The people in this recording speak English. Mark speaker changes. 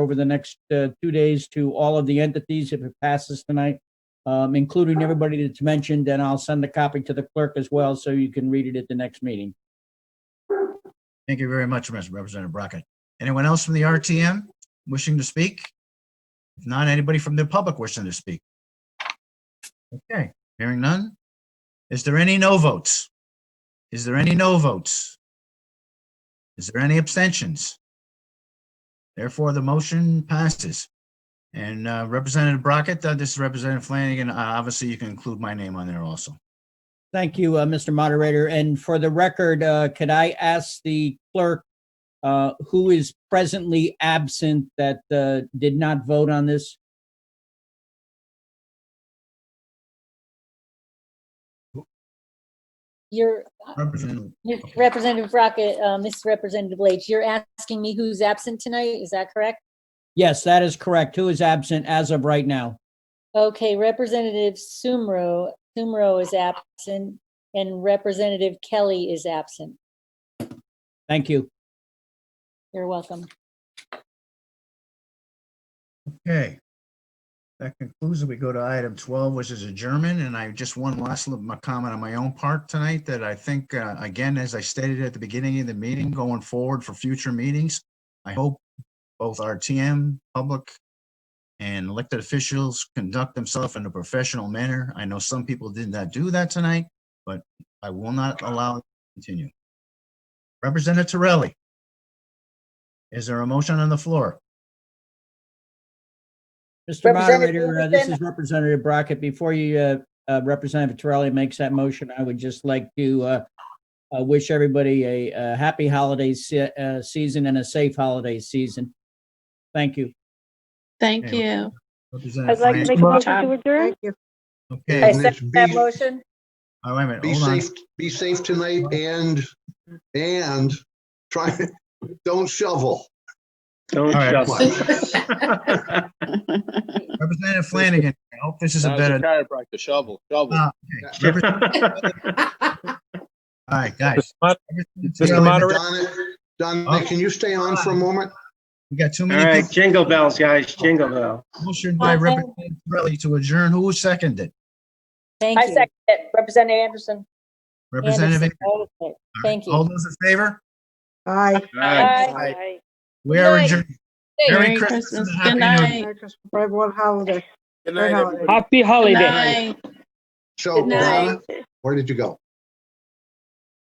Speaker 1: over the next uh, two days to all of the entities if it passes tonight, um, including everybody that's mentioned, and I'll send a copy to the clerk as well, so you can read it at the next meeting.
Speaker 2: Thank you very much, Mr. Representative Brackett. Anyone else from the RTM wishing to speak? If not, anybody from the public wishing to speak? Okay, hearing none. Is there any no votes? Is there any no votes? Is there any abstentions? Therefore, the motion passes. And uh, Representative Brackett, uh, this is Representative Flanagan. Uh, Obviously, you can include my name on there also.
Speaker 1: Thank you, uh, Mr. Moderator. And for the record, uh, could I ask the clerk uh, who is presently absent that uh, did not vote on this?
Speaker 3: You're,
Speaker 2: Representative
Speaker 3: Representative Rocket, uh, Mrs. Representative Leach, you're asking me who's absent tonight, is that correct?
Speaker 1: Yes, that is correct. Who is absent as of right now?
Speaker 3: Okay, Representative Sumro, Sumro is absent, and Representative Kelly is absent.
Speaker 1: Thank you.
Speaker 3: You're welcome.
Speaker 2: Okay. That concludes it. We go to item twelve, which is adjournment, and I just one last little my comment on my own part tonight that I think, uh, again, as I stated at the beginning of the meeting, going forward for future meetings, I hope both RTM, public, and elected officials conduct themselves in a professional manner. I know some people did not do that tonight, but I will not allow it to continue. Representative Torelli. Is there a motion on the floor?
Speaker 1: Mr.
Speaker 4: Representative
Speaker 1: Moderator, uh, this
Speaker 4: Anderson.
Speaker 1: is Representative Brackett. Before you, uh, uh, Representative Torelli makes that motion, I would just like to uh, uh, wish everybody a uh, happy holiday se- uh, season and a safe holiday season. Thank you.
Speaker 5: Thank
Speaker 2: Okay.
Speaker 5: you.
Speaker 2: Representative
Speaker 4: I'd like to
Speaker 2: Fran-
Speaker 4: make a motion to adjourn.
Speaker 2: Okay.
Speaker 4: I
Speaker 6: Yes,
Speaker 4: second that
Speaker 6: be-
Speaker 4: motion.
Speaker 2: Oh, wait a minute,
Speaker 6: Be
Speaker 2: hold on.
Speaker 6: safe, be safe tonight and, and try, don't shovel.
Speaker 7: Don't
Speaker 2: All right.
Speaker 7: shuffle.
Speaker 2: Representative Flanagan, I hope this is a better, all
Speaker 8: chiropractor shovel, shovel.
Speaker 2: Ah. right, guys.
Speaker 9: Mod-
Speaker 2: Representative
Speaker 9: Mr.
Speaker 2: Taylor,
Speaker 9: Moderator.
Speaker 6: Donna,
Speaker 2: Oh.
Speaker 6: Donna, can you stay on for a moment?
Speaker 2: We got too
Speaker 7: All
Speaker 2: many
Speaker 7: right,
Speaker 2: people.
Speaker 7: jingle bells, guys, jingle bells.
Speaker 2: Motion by
Speaker 3: Well, thank-
Speaker 2: Representative Torelli to adjourn. Who seconded?
Speaker 3: Thank
Speaker 4: I
Speaker 3: you.
Speaker 4: second it. Representative Anderson.
Speaker 2: Representative.
Speaker 3: Anderson,
Speaker 2: All
Speaker 3: all of it. Thank
Speaker 2: right, All
Speaker 3: you.
Speaker 2: those in favor?
Speaker 10: Aye.
Speaker 4: Aye.
Speaker 2: We are
Speaker 4: Night.
Speaker 2: adjourned. Merry Christmas. and
Speaker 5: Good
Speaker 2: Happy New Year.
Speaker 5: night.
Speaker 10: Merry Christmas, everyone, holiday.
Speaker 9: Good
Speaker 10: Happy
Speaker 9: night, everybody.
Speaker 10: holiday.
Speaker 5: Good night.
Speaker 6: So,
Speaker 5: Good night.
Speaker 6: Donna, where did you go?